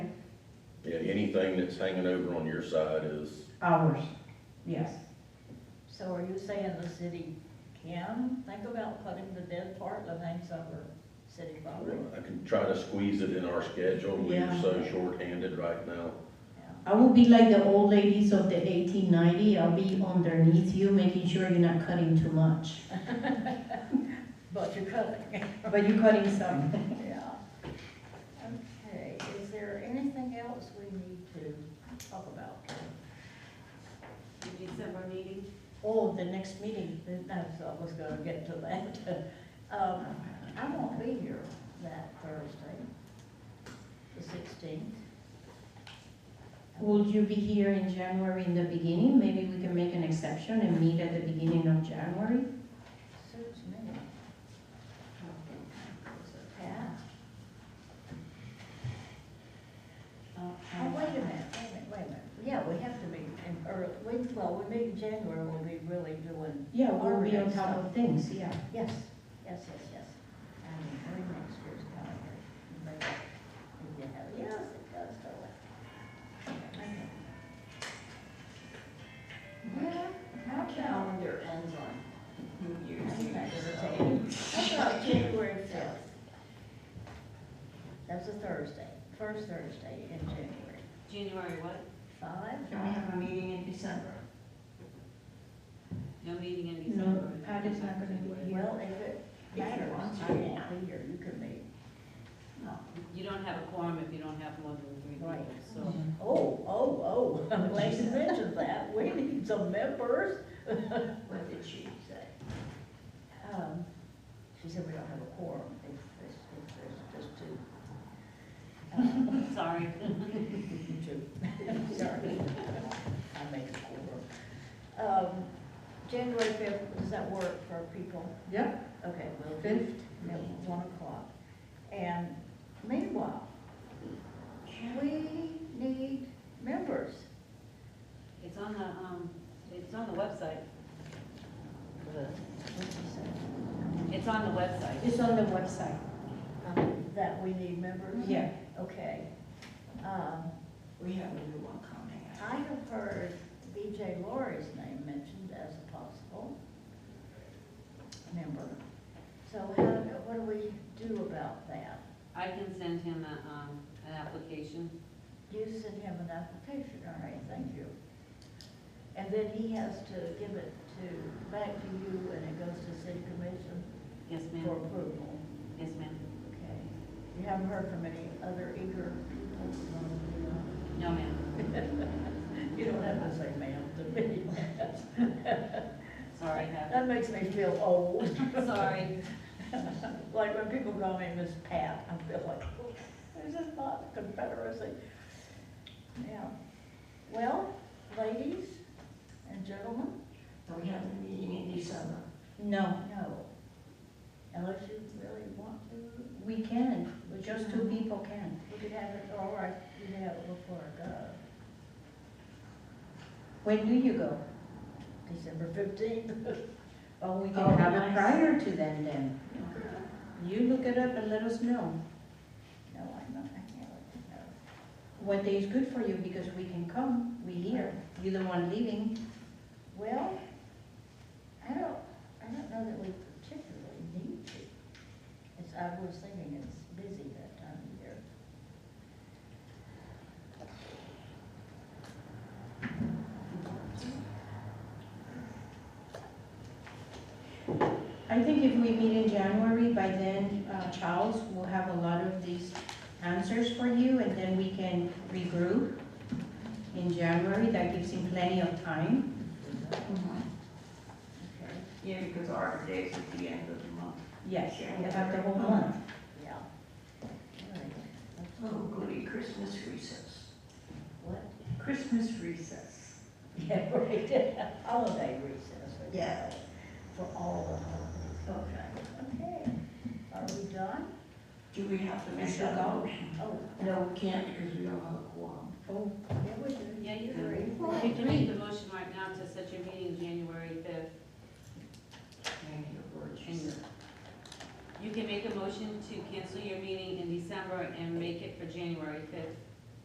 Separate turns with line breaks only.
Yeah, anything that's hanging over on your side is,
Ours, yes.
So are you saying the city can think about cutting the dead part that hangs over city property?
I can try to squeeze it in our schedule, we're
Yeah.
so shorthanded right now.
Yeah.
I will be like the old ladies of the 1890. I'll be underneath you, making sure you're not cutting too much.
But you're cutting,
But you're cutting some.
yeah. Okay, is there anything else we need to talk about?
The December meeting,
Oh, the next meeting, that's, I was gonna get to that. Um, I won't be here that Thursday, the sixteenth.
Would you be here in January in the beginning? Maybe we can make an exception and meet at the beginning of January?
Suits me. Yeah.
Uh,
Oh, wait a minute, wait a minute, wait a minute. Yeah, we have to meet in early, we, well, we meet in January, we'll be really doing,
Yeah, we'll be on top of things, yeah.
yes, yes, yes, yes. And we next year's calendar. Maybe we can have- Yes, it does go away.
yeah, our calendar ends on New Year's Eve, so.
That's about January fifth. That's a Thursday, first Thursday in January.
January what?
Five?
Can we have a meeting in December? No meeting in December?
No, Pat is not gonna be here.
Well, if it matters, I won't be here, you can meet.
You don't have a quorum if you don't have more than three
Right.
people, so.
Mm-hmm.
Oh, oh, oh, I'm glad you mentioned that, we need some members.
What did she say?
Um, She said we don't have a quorum, if there's, if there's just two. Uh,
Sorry.
Two, sorry. I made a quorum. Um, January fifth, does that work for people?
Yep,
Okay, well,
Fifth.
at one o'clock. And meanwhile, we need members.
It's on the, um, it's on the website.
What's he say?
It's on the website.
It's on the website,
Um, That we need members?
yeah.
Okay. Um,
We have a new one coming out.
I have heard BJ Laurie's name mentioned as a possible member. So how, what do we do about that?
I can send him a, um, an application.
You send him an application, all right, thank you. And then he has to give it to, back to you, and it goes to city commission
Yes,
for
ma'am.
approval.
Yes, ma'am.
Okay. You haven't heard from any other eager people? who want to be on?
No, ma'am.
You don't have to say ma'am to me.
Sorry, have
That makes me feel old.
Sorry.
Like when people call me Miss Pat, I feel like, "Oh, this is not the Confederacy. Yeah. Well, ladies and gentlemen,
We have the meeting in December.
No,
no. Unless you really want to,
we can, just two people can.
we could have it, or I could have it before uh, I go.
When do you go?
December fifteenth.
Oh, we
Oh,
can have it
nice.
prior to then, then. You look it up and let us know
No, I'm not, I can't, no.
what day is good for you, because we can come, we here, you the one leaving.
Well, I don't, I don't know that we particularly need to. It's, I was thinking it's busy that time of year.
I think if we meet in January, by then, uh, Charles will have a lot of these answers for you, and then we can regroup in January, that gives him plenty of time.
Mm-hmm.
Okay.
Yeah, because Arbor Day is at the end of the month.
Yes, we have the whole month.
Yeah. Alright, that's
Oh, goody, Christmas recess.
What?
Christmas recess.
Yeah, right, holiday recess. we
Yeah.
call it, For all the holidays. Okay. Okay, are we done?
Do we have to make
Should
that
go.
motion?
Oh,
No, we can't because we don't have a quorum.
Oh,
yeah, we do.
Yeah, you
Three.
agree. You can make the motion right now to set your meeting January fifth.
Thank you,
And
Lord Jesus.
you can make a motion to cancel your meeting in December and make it for January fifth.